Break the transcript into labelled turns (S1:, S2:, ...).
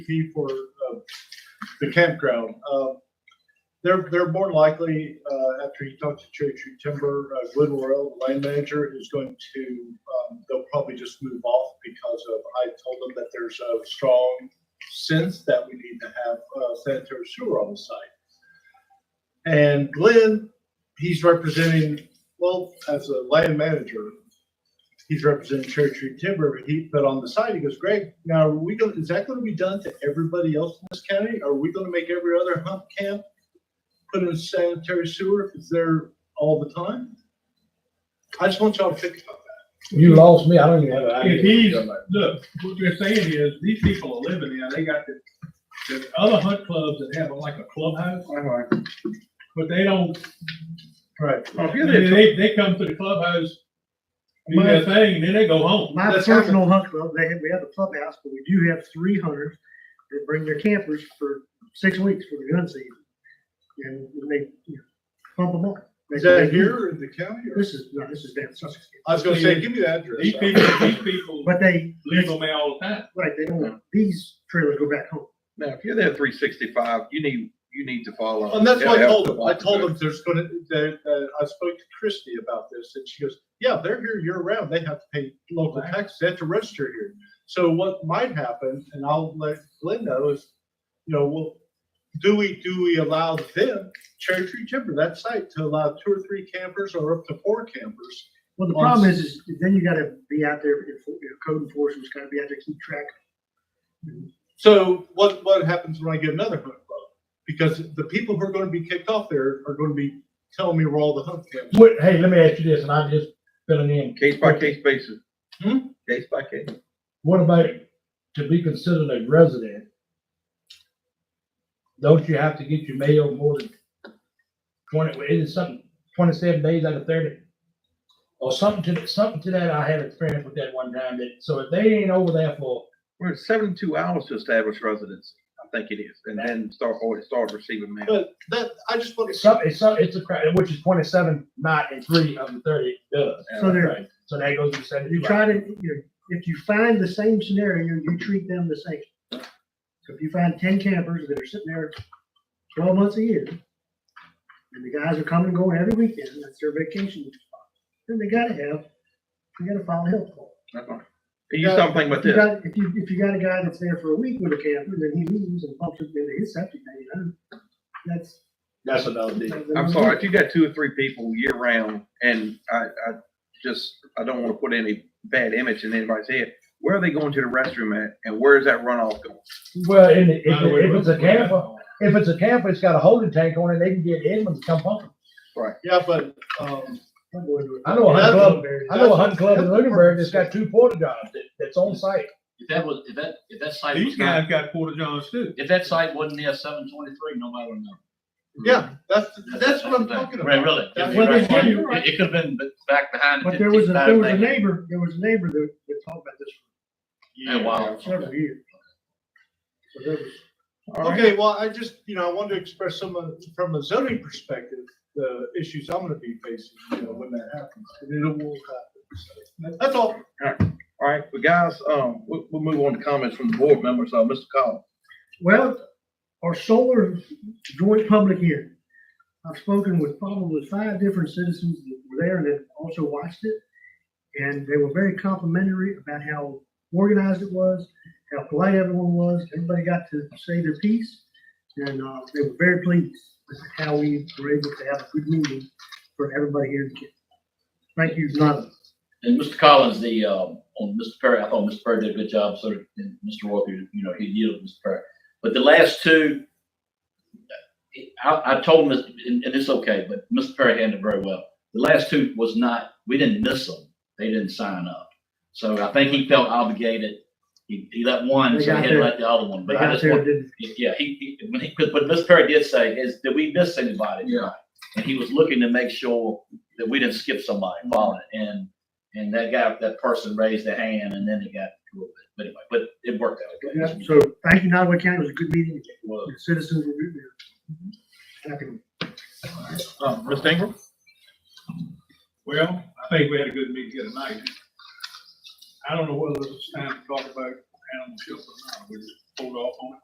S1: CUP for uh, the campground. Uh, They're, they're more likely, uh, after you talk to Cherry Tree Timber, uh, Glenn Worrell, the land manager, is going to, um, they'll probably just move off because of, I told them that there's a strong sense that we need to have uh, sanitary sewer on the site. And Glenn, he's representing, well, as a land manager, he's representing Cherry Tree Timber, but he, but on the side, he goes, Greg, now are we going, is that going to be done to everybody else in this county? Are we going to make every other hump camp put in sanitary sewer if it's there all the time? I just want y'all to think about that.
S2: You lost me, I don't even have an
S3: If
S2: idea.
S3: he's, look, what you're saying is, these people are living there, they got the, the other hunt clubs that have like a clubhouse, but they don't,
S1: Right.
S3: they, they- they come to the clubhouse, do their thing, then they go home.
S4: My
S1: That's
S4: personal hunt club, they have, we have a clubhouse, but we do have three hunters that bring their campers for six weeks for the gun season. And they, you know, pump them up.
S1: Is that here in the county or?
S4: This is, no, this is down Sussex.
S1: I was going to say, give me the address.
S3: These people, these people
S4: But they,
S3: live on there all the time.
S4: right, they don't, these trailers go back home.
S5: Now, if you're there three sixty-five, you need, you need to follow.
S1: And that's what I
S5: Yeah,
S1: told them. I
S5: yeah.
S1: told them there's gonna, that, uh, I spoke to Christy about this and she goes, yeah, they're here year round. They have to pay local
S3: Right.
S1: taxes. They have to register here. So what might happen, and I'll let Glenn know is, you know, well, do we, do we allow them, Cherry Tree Timber, that site to allow two or three campers or up to four campers?
S4: Well, the
S1: On
S4: problem is, is then you gotta be out there, if, you know, code enforcement's gotta be out there, keep track.
S1: So what, what happens when I get another hunt club? Because the people who are gonna be kicked off there are gonna be telling me where all the hunt camps.
S2: Wait, hey, let me ask you this, and I'm just filling in.
S5: Case by case basis.
S1: Hmm?
S5: Case by case.
S2: What about to be considered a resident? Don't you have to get your mail more than twenty, well, it is something, twenty-seven days out of thirty? Or something to, something to that, I had experience with that one time, that, so if they ain't over there for,
S5: We're at seventy-two hours to establish residency, I think it is, and then start, or start receiving mail.
S1: But that, I just want to.
S2: it's some, it's some, it's a, cra- which is twenty-seven, nine, and three of the thirty does.
S4: So they're,
S2: Right. So that goes to
S4: You
S2: seventy-two.
S4: try to, you know, if you find the same scenario, you treat them the same. So if you find ten campers that are sitting there twelve months a year, and the guys are coming and going every weekend, that's their vacation spot, then they gotta have, you gotta file a health call.
S5: That's all. And you start thinking about
S4: If you
S5: this,
S4: got, if you, if you got a guy that's there for a week with a camper, then he leaves and pumps it into his septic tank, you know, that's.
S2: That's another deal.
S5: I'm sorry, if you got two or three people year round, and I, I just, I don't wanna put any bad image in anybody's head, where are they going to the restroom at, and where is that runoff going?
S2: Well, and if,
S3: By the way,
S2: if it's a
S3: look where-
S2: camper, If it's a camper, it's got a holding tank on it, they can get Edmonds to come pump.
S1: Yeah, but, um,
S2: I know a
S1: That's
S2: hunt club, I know
S1: that's-
S2: a hunt club in
S1: that's the
S2: Lunenburg
S1: purpose.
S2: that's got two porta johns that, that's on site.
S6: If that was, if that, if that site
S3: These
S6: was not,
S3: guys got porta johns too.
S6: if that site wasn't there seven twenty-three, nobody would know.
S1: yeah, that's, that's what I'm talking about.
S6: Right, Really?
S1: That's
S4: what they
S6: Right.
S4: do.
S6: It, it could've been b- back behind.
S4: But there was, a
S6: 55
S4: there was a
S6: thing.
S4: neighbor, there was a neighbor that, that talked about this
S6: Yeah, wow.
S4: for several years. So there was.
S5: All right.
S1: Okay, well, I just, you know, I wanted to express some, of- from a zoning perspective, the issues I'm gonna be facing, you know, when that happens. And it will happen. So, That's all.
S5: All right, but guys, um, we'll, we'll move on to comments from the board members, uh, Mr. Collins.
S4: Well, our solar joint public hearing. I've spoken with probably five different citizens that were there and that also watched it. And they were very complimentary about how organized it was, how polite everyone was. Everybody got to say their piece. And, uh, they were very pleased with how we were able to have a good meeting for everybody here. in Kent. Thank you, Nada.
S6: And Mr. Collins, the, um, on Mr. Perry, I thought Mr. Perry did a good job, so did and Mr. Walker, you know, he yielded Mr. Perry. But the last two, I, I told him, this, and, and it's okay, but Mr. Perry handled it very well. The last two was not, we didn't miss them. They didn't sign up. So I think he felt obligated. He, he let one,
S4: They
S6: so
S4: got
S6: he had to
S4: their-
S6: let the other one.
S4: They
S6: But I
S4: got
S6: just
S4: there,
S6: want,
S4: didn't-
S6: yeah, he, he, when he, but but Mr. Perry did say, is, did we miss anybody?
S5: Yeah.
S6: and he was looking to make sure that we didn't skip somebody following it. And, and that guy, that person raised their hand and then it got a little bit, but anyway, but it worked out.
S4: Yeah,
S6: okay.
S4: So thank you, Nottaway County. It was a good meeting.
S6: Well,
S4: The citizens were good there. Happy.
S5: Um, Mr. Ingram?
S3: Well, I think we had a good meeting here tonight. I don't know whether it's time to talk about animal shelter or not, we just hold off on it.